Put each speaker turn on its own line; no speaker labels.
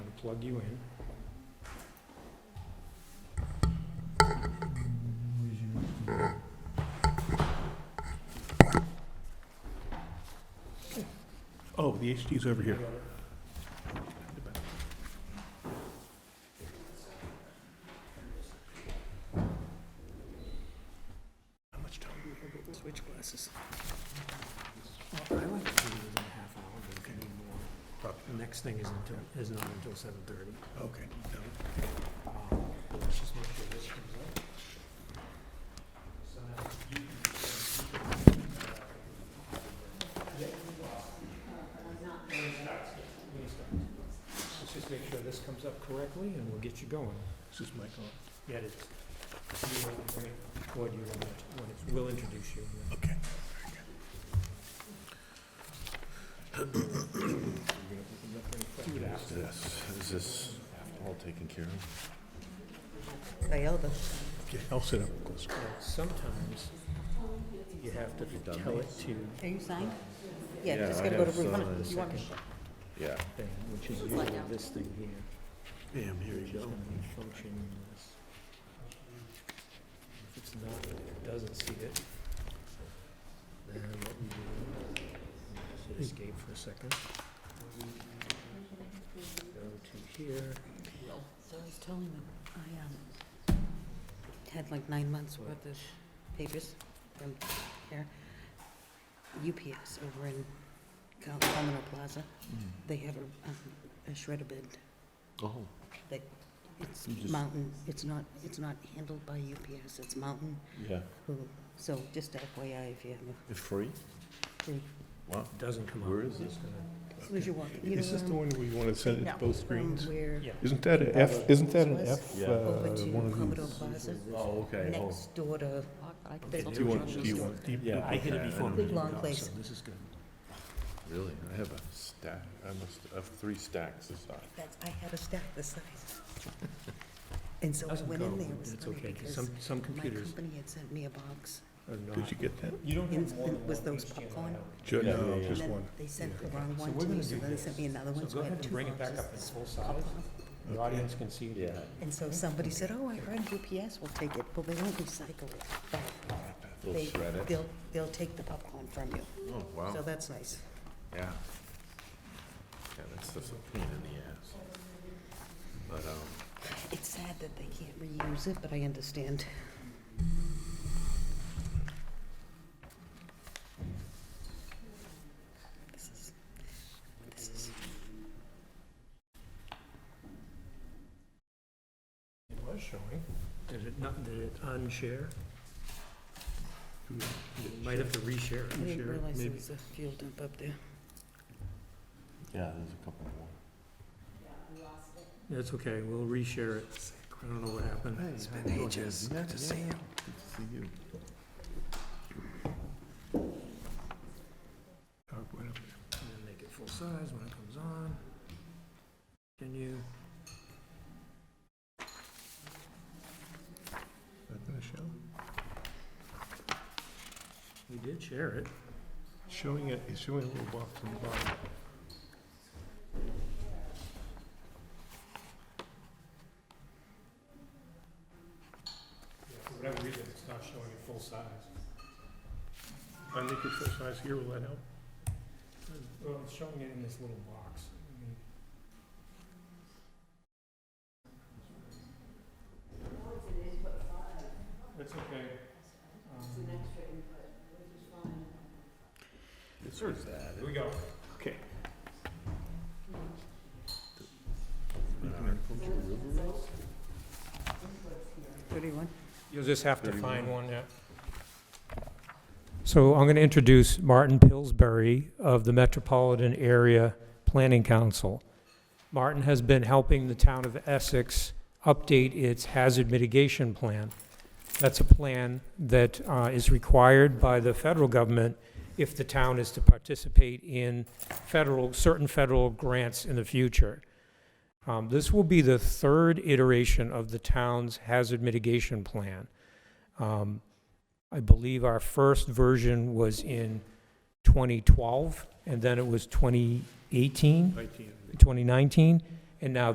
plug you in.
Oh, the HD's over here. How much time?
Switch glasses.
Well, I like to do it within a half hour, but if you need more. The
Probably,
next thing is until, is not until seven thirty.
okay. no.
Let's just make sure this comes up. Let's just make sure this comes up correctly and we'll get you going.
This is Michael.
Yeah, it is. You want to bring it toward you when it- when it's- we'll introduce you.
Okay. Yes, is this all taken care of?
Iota.
Okay, I'll sit up close.
Now, Sometimes you have to tell it to
Are you signed? Yeah,
Yeah,
just
I
gotta go to
have
Bruce.
signed.
You want me-
Yeah.
thing, which is
like
usually
a-
this thing here.
Bam, here
Which
you
is
go.
gonna be functioning as- If it's not, if it doesn't see it, then what we do, we should escape for a second. Go to here,
So I was telling them, I, um, had like nine months worth of papers from here. UPS over in Cal- Commodore Plaza,
Hmm.
they have a, um, a shredder bid.
Oh.
It's
You just-
Mountain, it's not, it's not handled by UPS, it's Mountain,
Yeah.
who, so just FYI if you have
It's free?
a free,
doesn't come up.
Where is
It's
it?
gonna-
as soon as you walk, you know,
Is this the
um,
one where you want to send it
No.
to both
from
screens?
where,
Yeah.
Isn't that an F, isn't that an F,
Yeah.
uh,
over to
one of
Commodore
these?
uh,
Plaza,
Oh, okay. Oh,
next door to,
Okay,
It's
Do you
there
want,
we
do
go.
you want deep?
Yeah,
I hit it
okay, I
before.
know.
we
Big long
got, so
place.
This is good.
Oh, really? I have a stack. I must I have three stacks this size.
that's, I had a stack this size. And so I
Doesn't
went
go,
in there, it was
it's
funny
okay, 'cause
because
some, some
my
computers
company had sent me a box.
are not.
Did you get that?
You don't
have Yes, more than was one those HDMI popcorn? out.
Ju-
Yeah, yeah,
No,
yeah.
just
And
one.
then they sent the
Okay,
wrong
so
one
we're
to
gonna
me, so
do
then they
this.
sent me another
So
one,
go
so I
ahead
had
and
two
bring it back up in
boxes.
full size. The audience can see. it.
Yeah.
And so somebody said, oh, I heard UPS will take it, well, they won't recycle it back.
They'll
They-
shred it.
They'll, they'll take the popcorn from you,
Oh,
so
wow.
that's nice.
Yeah. Yeah, that's just a pain in the ass. But, um,
It's sad that they can't reuse it, but I understand. This is, this is.
It was showing. Did it not, did it unshare? You Might have to reshare.
I didn't
Reshare it,
realize there
maybe.
was a fuel dump up there.
yeah, there's a couple more.
That's okay, we'll reshare it. I don't know what happened.
It's been ages. Good to see you. Good to see you.
PowerPoint up there.
And then make it full size when it comes on. Continue.
That gonna show?
We did share it.
Showing it, it's showing a little box on the bottom.
For whatever reason, it's not showing it full size.
I think it's this size here, will that help?
Well, it's showing it in this little box. That's okay.
This or is that?
Here we go.
Okay.
Thirty-one?
You'll just have to find one, yeah. So I'm going to introduce Martin Pillsbury of the Metropolitan Area Planning Council. Martin has been helping the town of Essex update its hazard mitigation plan. That's a plan that uh, is required by the federal government if the town is to participate in federal, certain federal grants in the future. Um, This will be the third iteration of the town's hazard mitigation plan. Um, I believe our first version was in 2012, and then it was 2018,
Nineteen, I think.
2019, and now